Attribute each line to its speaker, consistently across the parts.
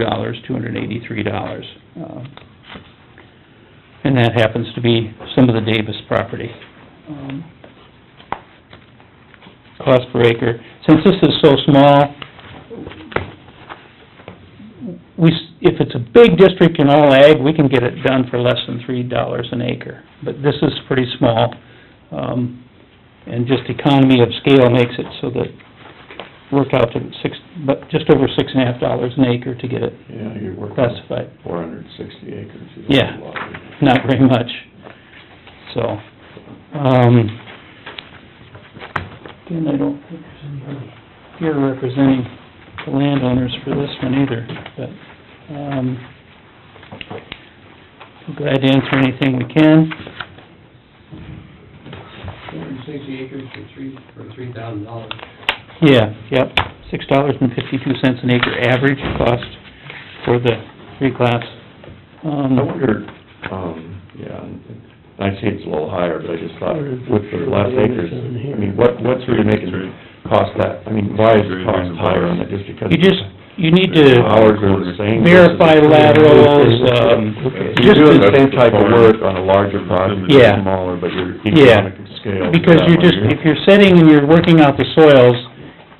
Speaker 1: dollars, two hundred and eighty-three dollars. And that happens to be some of the Davis property. Um, Cost per acre, since this is so small, we, s- if it's a big district in all ag, we can get it done for less than three dollars an acre. But this is pretty small, um, and just economy of scale makes it so that worked out to six, but just over six and a half dollars an acre to get it
Speaker 2: Yeah, you're working
Speaker 1: classified,
Speaker 2: four hundred and sixty acres. You don't
Speaker 1: Yeah.
Speaker 2: have a lot.
Speaker 1: not very much, so, um, again, I don't think there's anybody here representing the landowners for this one either, but, um, I'm glad to answer anything we can.
Speaker 3: Two hundred and sixty acres for three, for three thousand dollars.
Speaker 1: Yeah, yep, six dollars and fifty-two cents an acre average cost for the reclass. Um,
Speaker 2: I wonder, um, yeah, I see it's a little higher, but I just thought with the less acres, I mean, what, what's really making cost that, I mean, why is the cost higher on it, just because?
Speaker 1: You just, you need to,
Speaker 2: Hours are the same.
Speaker 1: Verify
Speaker 2: versus-
Speaker 1: laterals, um,
Speaker 2: So You're doing the same type of work on a larger project,
Speaker 1: Yeah.
Speaker 2: it's smaller, but your
Speaker 1: Yeah.
Speaker 2: economic scale. is
Speaker 1: because
Speaker 2: that
Speaker 1: you're
Speaker 2: much.
Speaker 1: just, if you're setting and you're working out the soils,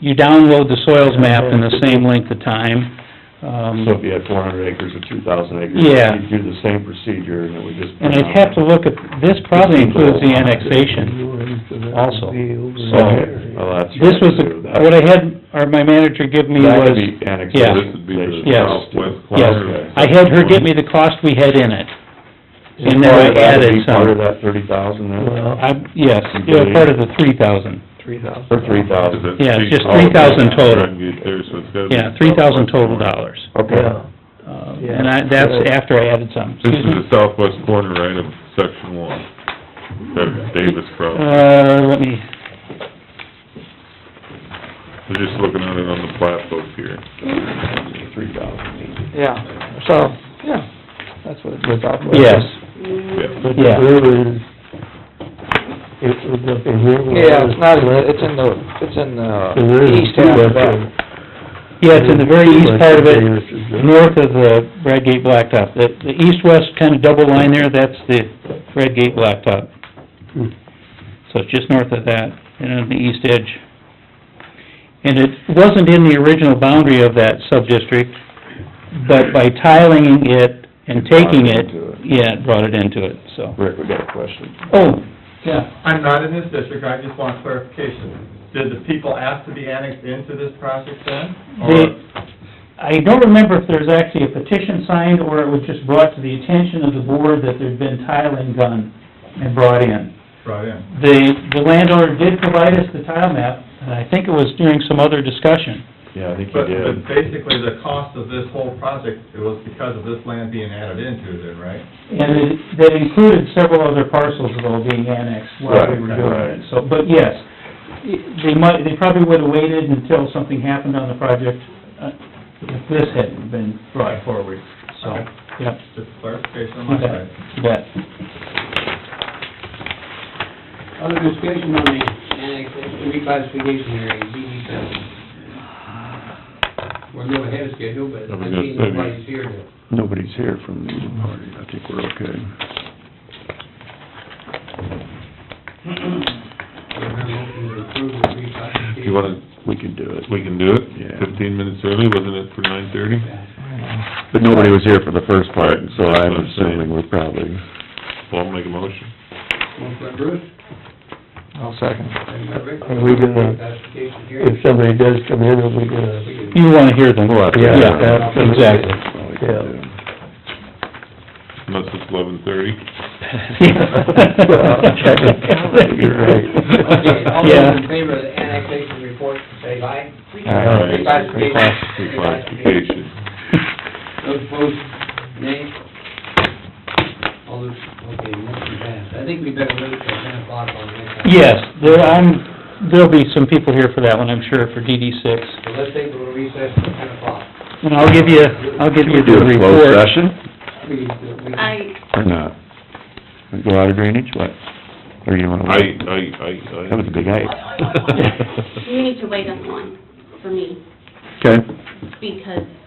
Speaker 1: you download the soils map in the same length of time.
Speaker 2: So if
Speaker 1: Um,
Speaker 2: you had four hundred acres or two thousand acres,
Speaker 1: Yeah.
Speaker 2: you'd do the same procedure, and it would just.
Speaker 1: and I'd have to look at, this probably includes the annexation. also.
Speaker 2: So,
Speaker 4: uh,
Speaker 2: well, that's.
Speaker 1: This was,
Speaker 2: right, too. That-
Speaker 1: what I had, or my manager give me
Speaker 2: That could
Speaker 1: was,
Speaker 2: be annexed.
Speaker 1: yeah.
Speaker 2: This would be the
Speaker 1: Yes.
Speaker 2: southwest
Speaker 1: yes,
Speaker 2: corner.
Speaker 1: I had her get me the cost we had in it. And then
Speaker 2: Part
Speaker 1: I
Speaker 2: of that would
Speaker 1: added
Speaker 2: be
Speaker 1: some.
Speaker 2: Part of that thirty thousand then,
Speaker 1: I, yes, it was part of the three thousand.
Speaker 2: or three thousand?
Speaker 1: Yeah, it's just three thousand total.
Speaker 4: There, so it's gotta be-
Speaker 1: Yeah, three thousand total dollars.
Speaker 2: Okay,
Speaker 1: Uh, and I, that's after I added some.
Speaker 4: This
Speaker 1: Excuse me?
Speaker 4: is the southwest corner, right, of section one, that Davis property.
Speaker 1: Uh, let me,
Speaker 4: We're just looking at it on the plat book here.
Speaker 2: three thousand.
Speaker 5: Yeah, so, yeah, that's what it is.
Speaker 1: yes,
Speaker 4: Yeah.
Speaker 1: yeah.
Speaker 5: Yeah, it's not, it's in the, it's in the east half of that.
Speaker 1: Yeah, it's in the very east part of it, north of the Red Gate Blacktop. The, the east-west kind of double line there, that's the Red Gate Blacktop.
Speaker 2: Hmm.
Speaker 1: So it's just north of that, and on the east edge. And it wasn't in the original boundary of that sub-district, but by tiling it and taking it,
Speaker 2: Brought it into
Speaker 1: yeah, it brought it into it, so.
Speaker 2: Rick, we got a question.
Speaker 1: Oh, yeah.
Speaker 6: I'm not in this district, I just want clarification. Did the people ask to be annexed into this project then?
Speaker 1: They,
Speaker 6: Or-
Speaker 1: I don't remember if there's actually a petition signed, or it was just brought to the attention of the board that there'd been tiling done and brought in.
Speaker 6: Right in.
Speaker 1: The, the landowner did provide us the tile map, and I think it was during some other discussion.
Speaker 2: Yeah, I think you
Speaker 6: But,
Speaker 2: did.
Speaker 6: but basically, the cost of this whole project, it was because of this land being added into then, right?
Speaker 1: And it, that included several other parcels though being annexed while we were
Speaker 2: Right,
Speaker 1: doing
Speaker 2: right.
Speaker 1: it, so, but yes. They might, they probably would've waited until something happened on the project, uh, if this hadn't been brought forward, so,
Speaker 6: Okay.
Speaker 1: yep.
Speaker 6: Just clarification on
Speaker 1: You
Speaker 6: my
Speaker 1: bet.
Speaker 6: side.
Speaker 1: You bet.
Speaker 3: Other discussion on the annexation, reclassification area, DD seven. We're a little ahead of schedule, but
Speaker 4: I
Speaker 3: I
Speaker 4: was gonna
Speaker 3: think
Speaker 4: say, we-
Speaker 3: nobody's here to,
Speaker 2: Nobody's here from the party, I think we're okay.
Speaker 3: to have a motion to approve the reclassification.
Speaker 4: Do you wanna,
Speaker 2: We could do it.
Speaker 4: we can do it?
Speaker 2: Yeah.
Speaker 4: Fifteen minutes early, wasn't it for nine thirty?
Speaker 2: But nobody was here for the first part, so I'm
Speaker 4: That's what I'm
Speaker 2: assuming we're probably,
Speaker 4: Well, I'll make a motion.
Speaker 3: Motion by Bruce,
Speaker 5: I'll second.
Speaker 3: second by Rick.
Speaker 7: Are we gonna-
Speaker 3: Reclassification area.
Speaker 7: If somebody does come in, are we gonna,
Speaker 3: We can-
Speaker 1: You wanna hear them.
Speaker 2: Well,
Speaker 7: yeah,
Speaker 2: Yeah.
Speaker 7: that's-
Speaker 1: Exactly.
Speaker 2: that's what we could
Speaker 7: Yeah.
Speaker 2: do.
Speaker 4: Unless it's eleven thirty.
Speaker 2: You're right.
Speaker 3: Okay, all
Speaker 1: Yeah.
Speaker 3: those in favor of the annexation report, say aye. Reclassification.
Speaker 4: Reclassification.
Speaker 3: Those opposed, nay? All those, okay, motion passed. I think we better wait till ten o'clock on the next one.
Speaker 1: Yes, there, I'm, there'll be some people here for that one, I'm sure, for DD six.
Speaker 3: So let's take a little recess till ten o'clock.
Speaker 1: And I'll give you, I'll give
Speaker 2: Can
Speaker 1: you
Speaker 2: we do
Speaker 1: the
Speaker 2: a closed
Speaker 1: report.
Speaker 2: session
Speaker 3: We can- we can-
Speaker 8: I,
Speaker 2: or not? We Go out of drainage, what? Or you wanna?
Speaker 4: I,
Speaker 2: wait?
Speaker 4: I, I, I.
Speaker 2: That was a big night.
Speaker 8: you need to wait on one for me
Speaker 2: Okay,
Speaker 8: because